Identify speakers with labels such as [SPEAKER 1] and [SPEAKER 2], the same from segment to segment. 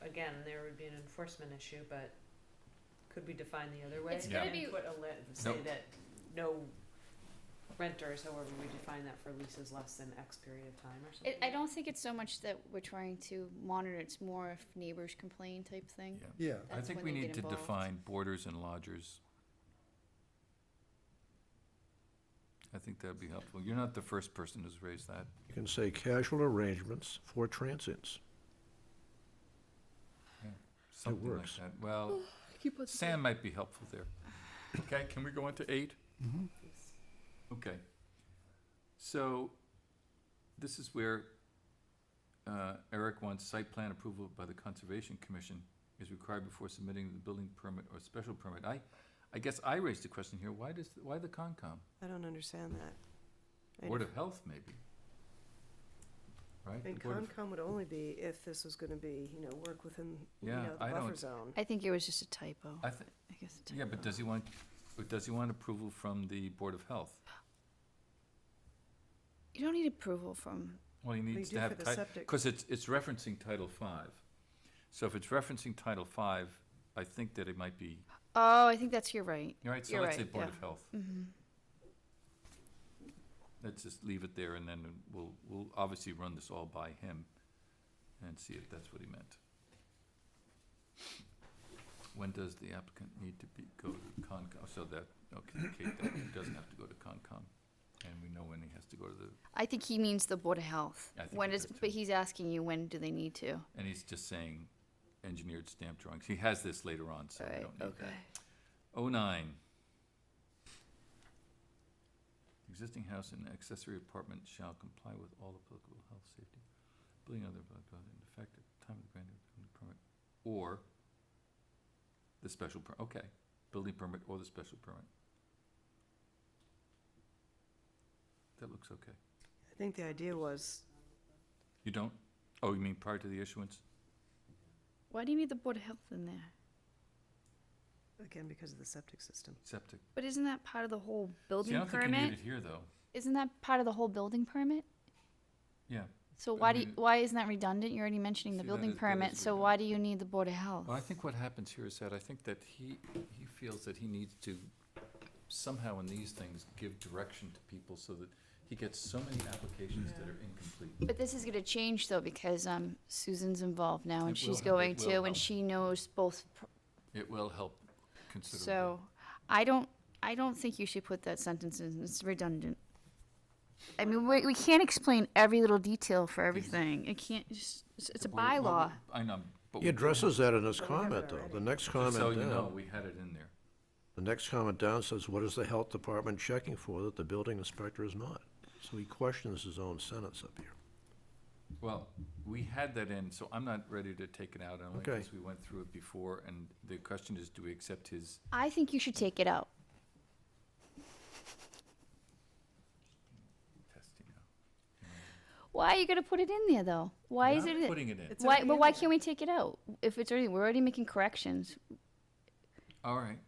[SPEAKER 1] again, there would be an enforcement issue, but could we define the other way?
[SPEAKER 2] It's gonna
[SPEAKER 1] And
[SPEAKER 2] be-
[SPEAKER 1] Put a lit, say
[SPEAKER 3] Nope.
[SPEAKER 1] that no renters, however we define that for leases less than X period of time or something?
[SPEAKER 2] It, I don't think it's so much that we're trying to monitor, it's more if neighbors complain type thing.
[SPEAKER 3] Yeah.
[SPEAKER 4] Yeah,
[SPEAKER 3] I
[SPEAKER 2] That's
[SPEAKER 3] think
[SPEAKER 2] when
[SPEAKER 3] we
[SPEAKER 2] they
[SPEAKER 3] need
[SPEAKER 2] get
[SPEAKER 3] to
[SPEAKER 2] involved.
[SPEAKER 3] define boarders and lodgers. I think that'd be helpful. You're not the first person who's raised that.
[SPEAKER 5] You can say casual arrangements for transients.
[SPEAKER 3] Something like
[SPEAKER 5] works.
[SPEAKER 3] that. Well, Sam might be helpful there. Okay, can we go on to eight? Okay. So, this is where uh, Eric wants site plan approval by the Conservation Commission is required before submitting the building permit or special permit. I, I guess I raised a question here. Why does, why the Concom?
[SPEAKER 6] I don't understand that. I-
[SPEAKER 3] Board of Health, maybe? Right?
[SPEAKER 6] And
[SPEAKER 3] The Board of-
[SPEAKER 6] Concom would only be if this was gonna be, you know, work within, you
[SPEAKER 3] Yeah,
[SPEAKER 6] know, the
[SPEAKER 3] I don't-
[SPEAKER 6] buffer zone.
[SPEAKER 2] I think it was just a typo,
[SPEAKER 3] I thi-
[SPEAKER 2] I guess a typo.
[SPEAKER 3] yeah, but does he want, but does he want approval from the Board of Health?
[SPEAKER 2] You don't need approval from,
[SPEAKER 3] Well, he needs
[SPEAKER 6] do
[SPEAKER 3] to have
[SPEAKER 6] for the
[SPEAKER 3] title,
[SPEAKER 6] septic.
[SPEAKER 3] because it's, it's referencing Title Five. So if it's referencing Title Five, I think that it might be,
[SPEAKER 2] oh, I think that's, you're right.
[SPEAKER 3] all right, so
[SPEAKER 2] You're
[SPEAKER 3] let's say
[SPEAKER 2] right,
[SPEAKER 3] Board
[SPEAKER 2] yeah. Mm-hmm.
[SPEAKER 3] of Health. Let's just leave it there and then we'll, we'll obviously run this all by him and see if that's what he meant. When does the applicant need to be, go to Concom, Oh, so that, okay, Kate, that he doesn't have to go to Concom. And we know when he has to go to the,
[SPEAKER 2] I think he means the Board of Health.
[SPEAKER 3] I think
[SPEAKER 2] When
[SPEAKER 3] he
[SPEAKER 2] is,
[SPEAKER 3] does, too.
[SPEAKER 2] but he's asking you, when do they need to?
[SPEAKER 3] and he's just saying engineered stamp drawings. He has this later on, so we
[SPEAKER 2] Right,
[SPEAKER 3] don't need that.
[SPEAKER 2] okay.
[SPEAKER 3] Oh nine. Existing house and accessory apartment shall comply with all applicable health, safety, building other, blah, blah, in effect at the time of the granting of the permit, or the special per, okay, building permit or the special permit. That looks okay.
[SPEAKER 6] I think the idea was,
[SPEAKER 3] You don't, oh, you mean prior to the issuance?
[SPEAKER 2] Why do you need the Board of Health in there?
[SPEAKER 6] again, because of the septic system.
[SPEAKER 3] Septic.
[SPEAKER 2] But isn't that part of the whole
[SPEAKER 3] See, I
[SPEAKER 2] building
[SPEAKER 3] don't think you need
[SPEAKER 2] permit?
[SPEAKER 3] it here, though.
[SPEAKER 2] Isn't that part of the whole building permit?
[SPEAKER 3] Yeah.
[SPEAKER 2] So
[SPEAKER 3] I
[SPEAKER 2] why do,
[SPEAKER 3] mean,
[SPEAKER 2] you-
[SPEAKER 3] it-
[SPEAKER 2] why isn't that redundant? You're already mentioning the
[SPEAKER 3] See, that
[SPEAKER 2] building
[SPEAKER 3] is- that
[SPEAKER 2] permit,
[SPEAKER 3] is
[SPEAKER 2] so why do you need the Board of Health?
[SPEAKER 3] Well, I think what happens here is that I think that he, he feels that he needs to somehow in these things give direction to people so that he gets so many applications that are incomplete.
[SPEAKER 2] But this is gonna change though, because, um, Susan's involved now
[SPEAKER 3] It
[SPEAKER 2] and she's
[SPEAKER 3] will help.
[SPEAKER 2] going
[SPEAKER 3] It will
[SPEAKER 2] to,
[SPEAKER 3] help.
[SPEAKER 2] and she knows both, pr-
[SPEAKER 3] It will help considerably.
[SPEAKER 2] so, I don't, I don't think you should put that sentence in, it's redundant. I mean, we, we can't explain every little detail for everything, it can't, it's, it's- it's a
[SPEAKER 3] Well, well,
[SPEAKER 2] bylaw.
[SPEAKER 3] I know, but. Oh,
[SPEAKER 5] He
[SPEAKER 3] we-
[SPEAKER 5] addresses that in his
[SPEAKER 6] But we have it
[SPEAKER 5] comment, though.
[SPEAKER 6] already.
[SPEAKER 5] The next
[SPEAKER 3] just So
[SPEAKER 5] comment
[SPEAKER 3] you know,
[SPEAKER 5] down,
[SPEAKER 3] we had it in there.
[SPEAKER 5] the next comment down says, what is the health department checking for that the building inspector is not? So he questions his own sentence up here.
[SPEAKER 3] Well, we had that in, so I'm not ready to take it out only
[SPEAKER 5] Okay.
[SPEAKER 3] because we went through it before and the question is, do we accept his?
[SPEAKER 2] I think you should take it out,
[SPEAKER 3] testing out?
[SPEAKER 2] why are you gonna put it in there though? Why is
[SPEAKER 3] Not
[SPEAKER 2] it? in-
[SPEAKER 3] Putting it in.
[SPEAKER 6] It's
[SPEAKER 2] Why,
[SPEAKER 6] already
[SPEAKER 2] but
[SPEAKER 6] in
[SPEAKER 2] why
[SPEAKER 6] there.
[SPEAKER 2] can't we take it out? If it's already, we're already making corrections,
[SPEAKER 3] All right.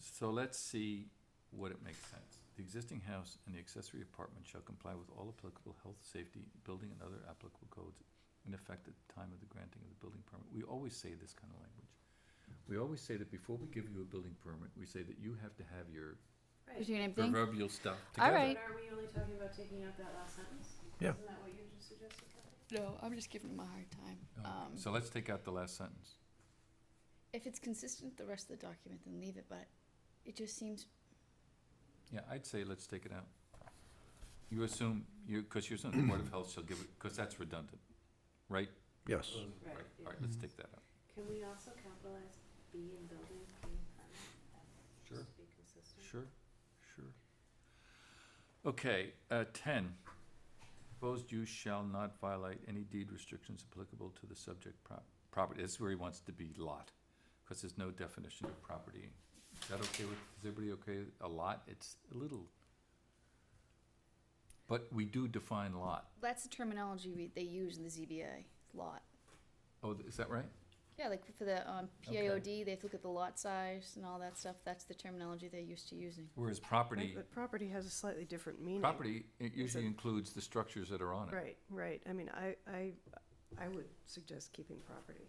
[SPEAKER 3] So let's see what it makes sense. The existing house and the accessory apartment shall comply with all applicable health, safety, building and other applicable codes in effect at the time of the granting of the building permit. We always say this kind of language. We always say that before we give you a building permit, we say that you have to have your
[SPEAKER 2] is your name thing?
[SPEAKER 3] proverbial stuff
[SPEAKER 2] All
[SPEAKER 3] together.
[SPEAKER 2] right.
[SPEAKER 1] are we only talking about taking out that last sentence?
[SPEAKER 5] Yeah.
[SPEAKER 1] Isn't that what you just suggested,
[SPEAKER 2] No, I'm just giving him a hard time.
[SPEAKER 3] Okay,
[SPEAKER 2] Um,
[SPEAKER 3] Oh, So let's take out the last sentence.
[SPEAKER 2] if it's consistent with the rest of the document, then leave it, but it just seems,
[SPEAKER 3] Yeah, I'd say let's take it out. You assume, you, because you're saying the Board of Health shall give it, because that's redundant, right?
[SPEAKER 5] Yes.
[SPEAKER 3] Right,
[SPEAKER 1] Right.
[SPEAKER 3] all right, let's take that out.
[SPEAKER 1] Can we also capitalize B in building, being
[SPEAKER 3] Sure.
[SPEAKER 1] be consistent?
[SPEAKER 3] Sure, sure. Okay, uh, ten. Proposed use shall not violate any deed restrictions applicable to the subject prop- property. This is where he wants to be lot, because there's no definition of property. Is that okay with, is everybody okay? with A lot, it's a little. But we do define lot.
[SPEAKER 2] that's the terminology we, they use in the ZBA, lot.
[SPEAKER 3] Oh, is that right?
[SPEAKER 2] Yeah, like for the, um,
[SPEAKER 3] Okay.
[SPEAKER 2] PIOD, they have to look at the lot size and all that stuff, that's the terminology they're used to using.
[SPEAKER 3] Whereas
[SPEAKER 6] Right,
[SPEAKER 3] property,
[SPEAKER 6] But property has a slightly different meaning.
[SPEAKER 3] property, it usually
[SPEAKER 6] a-
[SPEAKER 3] includes the structures that are on it.
[SPEAKER 6] Right, right. I mean, I, I, I would suggest keeping property.